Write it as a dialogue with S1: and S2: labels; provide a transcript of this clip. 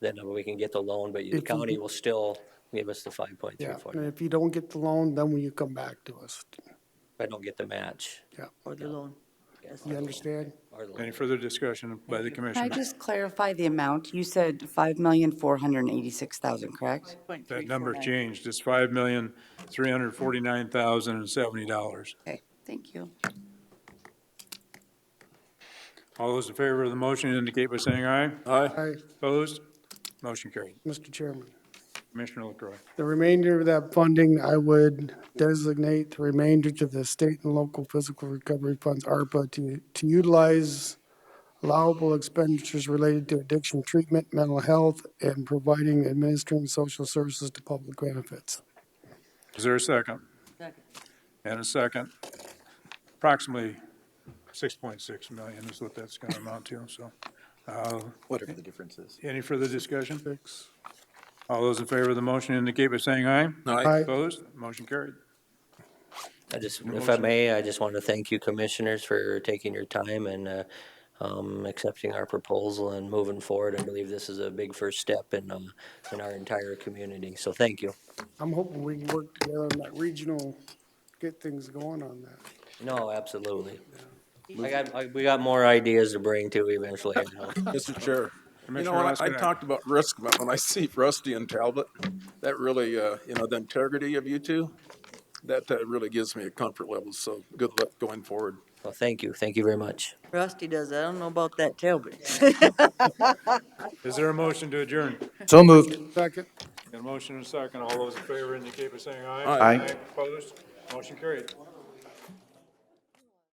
S1: that number, we can get the loan, but the
S2: If you
S1: county
S2: could-
S1: will still give us the five point three
S2: Yeah,
S1: four.
S2: and if you don't get the loan, then will you come back to us?
S1: I don't get the match.
S2: Yeah,
S3: or the loan.
S1: Yes,
S2: you understand?
S1: or the loan.
S4: Any further discussion by the
S5: Can I
S4: commission?
S5: just clarify the amount? You said five million, four hundred and eighty-six thousand, correct?
S4: That number changed. It's five million, three hundred forty-nine thousand and seventy dollars.
S5: Okay, thank you.
S4: All those in favor of the motion indicate by saying aye.
S2: Aye,
S4: Opposed? Motion carried.
S2: Mr. Chairman.
S4: Commissioner LaCroy.
S2: The remainder of that funding, I would designate the remainder to the state and local physical recovery funds, ARPA, to, to utilize allowable expenditures related to addiction treatment, mental health, and providing administering social services to public benefits.
S4: Is there a second?
S3: Second.
S4: And a second. Approximately six point six million is what that's gonna amount to, so. uh,
S6: whatever the difference is.
S4: Any further discussion?
S2: Six.
S4: All those in favor of the motion indicate by saying aye.
S2: Aye.
S4: Opposed? Motion carried.
S1: I just,
S4: Your
S1: if I
S4: motion.
S1: may, I just want to thank you commissioners for taking your time and uh, um, accepting our proposal and moving forward. I believe this is a big first step in, um, in our entire community, so thank you.
S2: I'm hoping we can work together on that regional, get things going on that.
S1: No, absolutely. I got, I- we got more ideas to bring to eventually. I know.
S6: Mr. Chair. You know,
S4: Commissioner
S6: I, I
S4: Laskinen.
S6: talked about risk, but when I see Rusty and Talbot, that really, uh, you know, the integrity of you two, that, uh really gives me a comfort level. So good luck going forward.
S1: Well, thank you, thank you very much.
S3: Rusty does that. I don't know about that Talbot.
S4: Is there a motion to adjourn?
S7: So moved.
S2: Second.
S4: Got a motion and a second. All those in favor indicate by saying aye.
S6: Aye.
S7: Aye.
S4: Opposed? Motion carried.